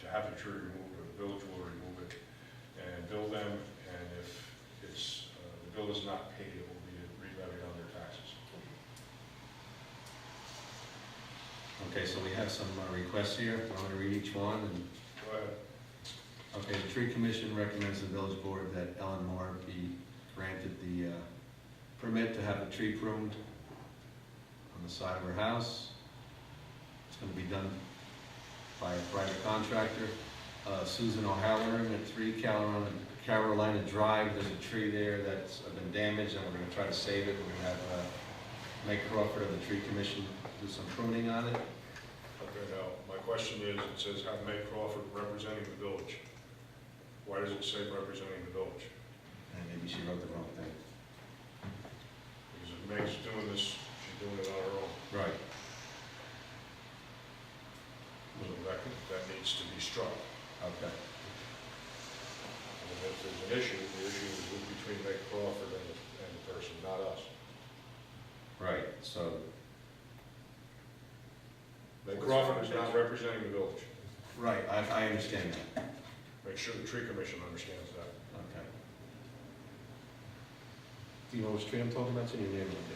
to have the tree removed, or the village will remove it and bill them, and if it's, uh, the bill is not paid, it will be re-levied on their taxes. Okay, so we have some uh, requests here, I'm gonna read each one, and Go ahead. Okay, the tree commission recommends the village board that Ellen Moore be granted the uh, permit to have a tree pruned on the side of her house. It's gonna be done by a private contractor. Uh, Susan O'Halloran at Three Carolina, Carolina Drive, there's a tree there that's been damaged, and we're gonna try to save it. We're gonna have uh, Mike Crawford of the tree commission do some pruning on it. Okay, now, my question is, it says have May Crawford representing the village. Why does it say representing the village? And maybe she wrote the wrong thing. Because if Meg's doing this, she's doing it on her own. Right. So that, that needs to be struck. Okay. And if there's an issue, the issue is between Meg Crawford and the, and the person, not us. Right, so Meg Crawford is not representing the village. Right, I, I understand that, Make sure the tree commission understands that. okay. Do you know which tree I'm talking about, it's in your neighborhood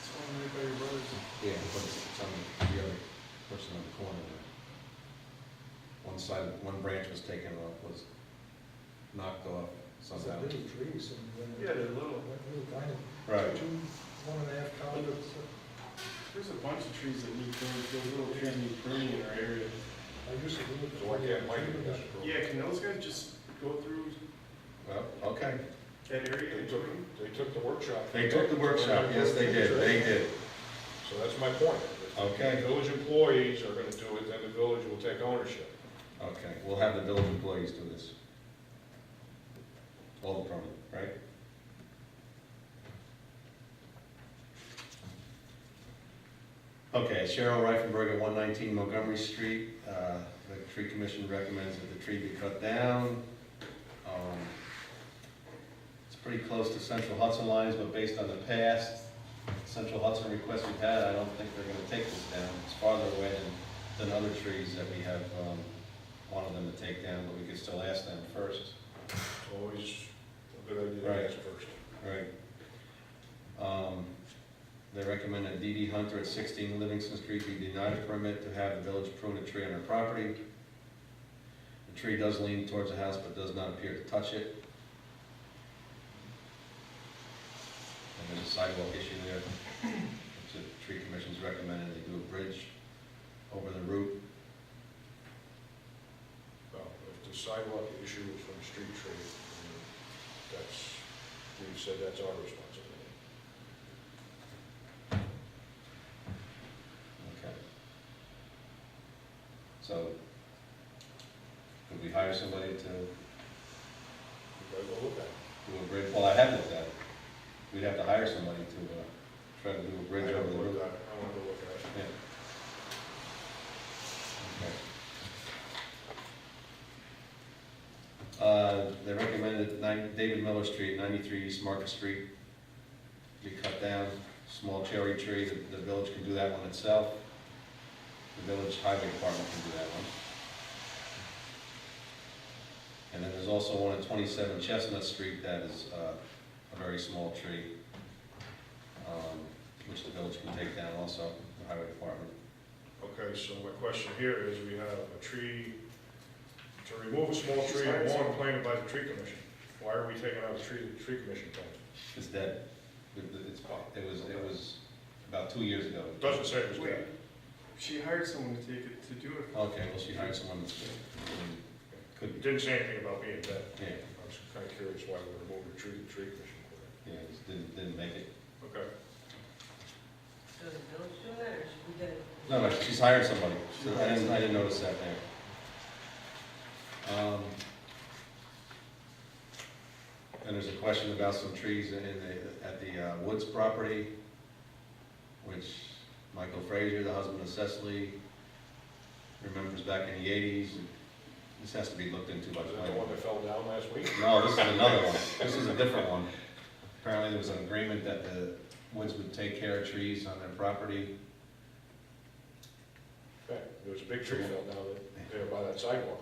It's only made by your brothers. Yeah, but it's it's on the, the other person on the corner there. One side, one branch was taken off, was knocked off It's a somehow. little trees and. Yeah, they're little. Like little tiny. Right, Two, one and a half columns. There's a bunch of trees that need pruning, there's little trees need pruning in our area. I used to do it. So why can't Mike do that? Yeah, can those guys just go through well, okay. that area? They and took, prune? they took the workshop. They took the workshop, yes, they did, they did, So that's my point. Okay. If Village employees are gonna do it, then the village will take ownership. okay, we'll have the village employees do this. All the problem, right? Okay, Cheryl Reifenberg at one nineteen Montgomery Street, uh, the tree commission recommends that the tree be cut down. Um, It's pretty close to Central Hudson lines, but based on the past Central Hudson requests we've had, I don't think they're gonna take this down. It's farther away than, than other trees that we have, um, wanted them to take down, but we could still ask them first. Always a good idea to ask first. Right. Um, They recommend that D.D. Hunter at 16 Livingston Street be denied a permit to have the village prune a tree on her property. The tree does lean towards the house but does not appear to touch it. And there's a sidewalk issue there, which the tree commission's recommending they do a bridge over the route. Well, if the sidewalk issue is from street tree, then that's, we've said that's our responsibility. Okay. So, could we hire somebody to You gotta go look at it. do a bridge, well, I have looked at it. We'd have to hire somebody to, uh, try to do a I bridge over don't the look river. at it, I wanna go look at it. Yeah. Okay. Uh, they recommended nine, David Miller Street, ninety-three East Market Street, be cut down, small cherry tree, the, the village can do that one itself. The village highway department can do that one. And then there's also one at twenty-seven Chestnut Street that is, uh, a very small tree, um, which the village can take down also, the highway department. Okay, so my question here is, we have a tree, to remove a small tree, Sorry, a sorry. lawn planted by the tree commission. Why are we taking out the tree, the tree commission planted? It's dead. It- It's, it was, it was about two years ago. It doesn't say it was Wait, dead. she hired someone to take it, to do it. Okay, well, she hired someone that's, I mean, It could, didn't say anything about being dead. yeah, I was kind of curious why we removed the tree, the tree commission planted. yeah, just didn't, didn't make it. Okay, So the village do that, or should we get it? No, no, she's hired somebody, so I didn't, I didn't notice that there. Um, And there's a question about some trees in the, at the uh, Woods property, which Michael Frazier, the husband of Cecily, remembers back in the eighties. This has to be looked into by was the that the planning one that fell down last week? No, this is another one. This is a different one. Apparently, there was an agreement that the Woods would take care of trees on their property. Okay, There was a big tree fell down there by that sidewalk